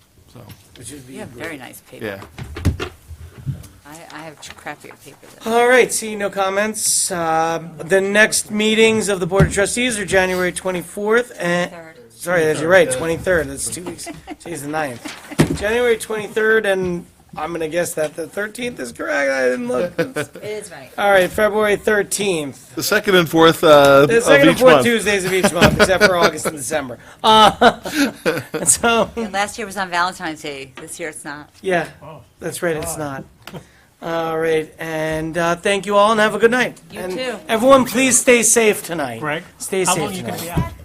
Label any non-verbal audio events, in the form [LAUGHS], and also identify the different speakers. Speaker 1: so,
Speaker 2: Which would be
Speaker 3: You have
Speaker 2: great.
Speaker 3: very nice paper.
Speaker 1: yeah.
Speaker 3: I, I have crappier paper than.
Speaker 2: All right, seeing no comments, um, the next meetings of the Board of Trustees are January 24th and,
Speaker 3: Third.
Speaker 2: sorry, that's- you're right, 23rd, that's two weeks, today's the 9th. January 23rd, and I'm going to guess that the 13th is correct, I didn't
Speaker 1: [LAUGHS]
Speaker 2: look.
Speaker 3: It is right.
Speaker 2: All right, February 13th,
Speaker 1: The second and fourth uh, of
Speaker 2: the second and
Speaker 1: each
Speaker 2: fourth
Speaker 1: month.
Speaker 2: Tuesdays of each month, except
Speaker 1: [LAUGHS]
Speaker 2: for August and December. Uh, [LAUGHS] and So,
Speaker 3: And last year was on Valentine's Day. This year it's not.
Speaker 2: yeah, that's right, it's not. All right, and uh, thank you all, and have a good night.
Speaker 3: You
Speaker 2: And
Speaker 3: too.
Speaker 2: Everyone, please stay safe tonight.
Speaker 4: Greg?
Speaker 2: Stay
Speaker 4: How
Speaker 2: safe
Speaker 4: long you gonna
Speaker 2: tonight.
Speaker 4: be out?